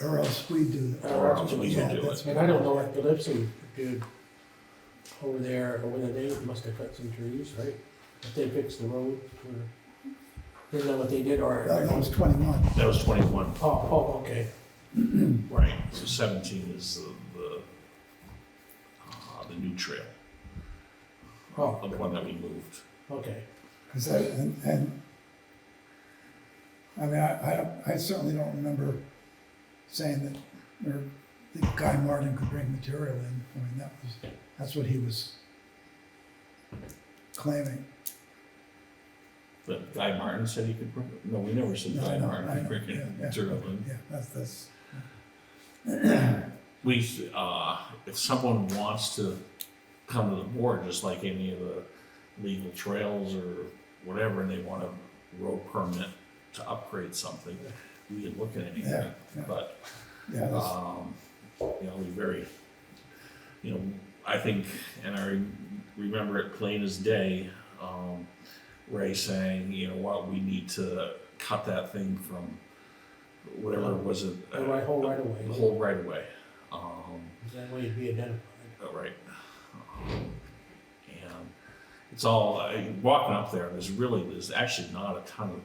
or else we do. it. Or else we Yeah, do it. that's what And I don't know if the Lipson dude over there, over there, they must have cut some trees, right? If they fixed the road, or, isn't that what they did, or? No, that was twenty-one. That was twenty-one, Oh, oh, okay, right, so seventeen is the, the, uh, the new trail, oh, the one that we moved. okay. Cause I, and, and, I mean, I, I, don't- I certainly don't remember saying that, or that Guy Martin could bring material in. I mean, that was, that's what he was claiming. But Guy Martin said he could bring, it. no, we never said No, I Guy know, Martin I know, could bring yeah, it yeah. material in. Yeah, that's, that's, We, uh, if someone wants to come to the board, just like any of the legal trails or whatever, and they want a road permit to upgrade something, we can look at anything, Yeah, yeah. but yeah, that's, Um, you know, we very, you know, I think, and I re- remember it plain as day, um, Ray saying, you know, what, we need to cut that thing from whatever it was it. The right whole right The away. whole right of way, um, that way it'd be identified. uh, right. Um, And it's all, I- walking up there, there's really, there's actually not a ton of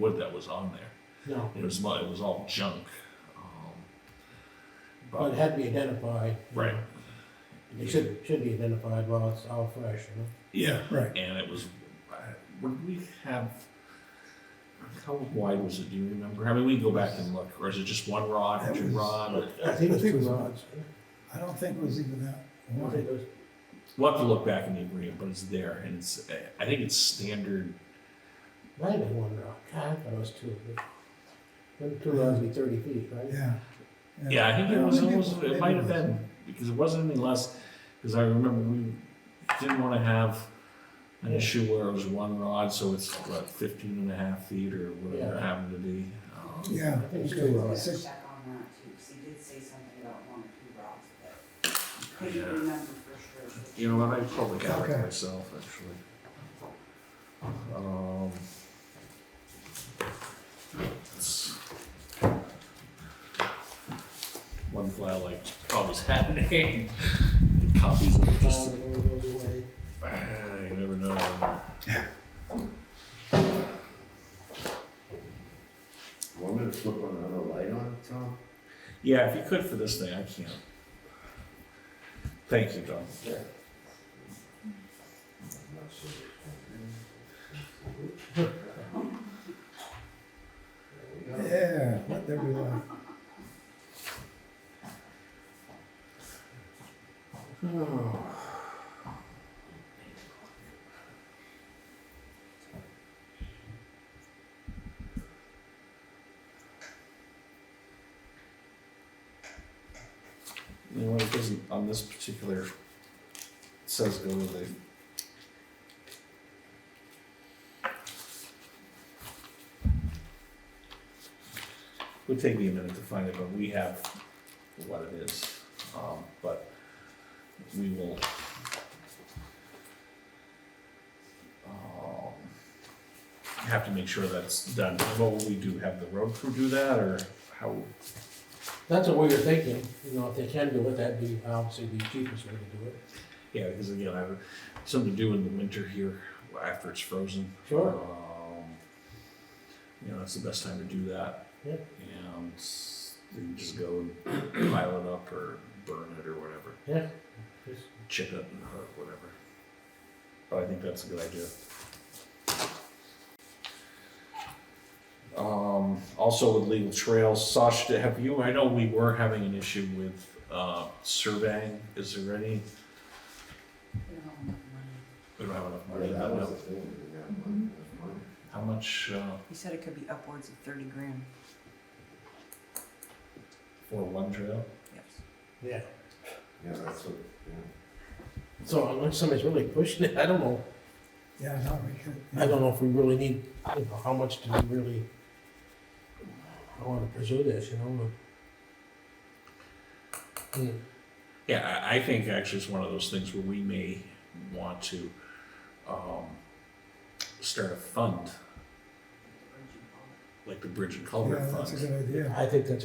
wood that was on there. No, It was, mu- it was all junk. um, but it had to be identified. you Right. know. It should, should be identified while it's all fresh, you know? Yeah. right. And it was, uh, would we have, how wide was it, do you remember? I mean, we can go back and look, or is it just one rod, or It two was- rod? or- I think it's I think it two was- rods. I don't think it was even that I don't wide. think it was- We'll have to look back in the agreement, but it's there, and it's, uh, I think it's standard, Might have been one rod, God, I thought it was two. but- Them two rods would be thirty feet, right? Yeah. yeah, I think it Yeah, was, maybe almost- maybe it might have was. been, because it wasn't any less, because I remember we didn't wanna have an Yeah. issue where it was one rod, so it's, what, fifteen and a half feet, or whatever it Yeah. happened to be. Um, I Yeah. think it's okay, two well, rods. it's- Check on that too, 'cause he did say something about one or two rods, but I couldn't remember for sure. You know what, I probably got it Okay. myself, actually. Um. it's- One file I always had in hand, copies of it, just, Um, it goes away. Ah, you never know. Want me to flip another light on, Tom? Yeah, if you could for this thing, I can't. Thank you, Don. Yeah, let there be light. You know, it doesn't, on this particular, it says go with the. Would take me a minute to find it, but we have what it is, um, but we will. um, Have to make sure that's done, will we do have the road crew do that, or how, That's what we were thinking, you know, if they can do it, that'd be obviously the cheapest way to do it. Yeah, because again, I have something to do in the winter here after it's frozen. Sure. Um, you know, that's the best time to do that. Yeah. And s- you can just go and pile it up or burn it or whatever, Yeah. Just- chip it and or whatever. But I think that's a good idea. Um, also with legal trails, Sasha, have you, I know we were having an issue with, uh, surveying. Is there any, we don't have enough money. Yeah, that no. was the thing, we got one, that's mine. How much uh, He said it could be upwards of thirty grand. for one trail? Yes. Yeah, Yeah, that's what, yeah. so unless somebody's really pushing it, I don't know, Yeah, no, we could. I don't know if we really need, you know, how much do we really I wanna pursue this, you know, but. Hmm, Yeah, I, I think actually it's one of those things where we may want to um, start a fund, like the Bridge and Yeah, Culvert that's a Fund. good idea. I think that's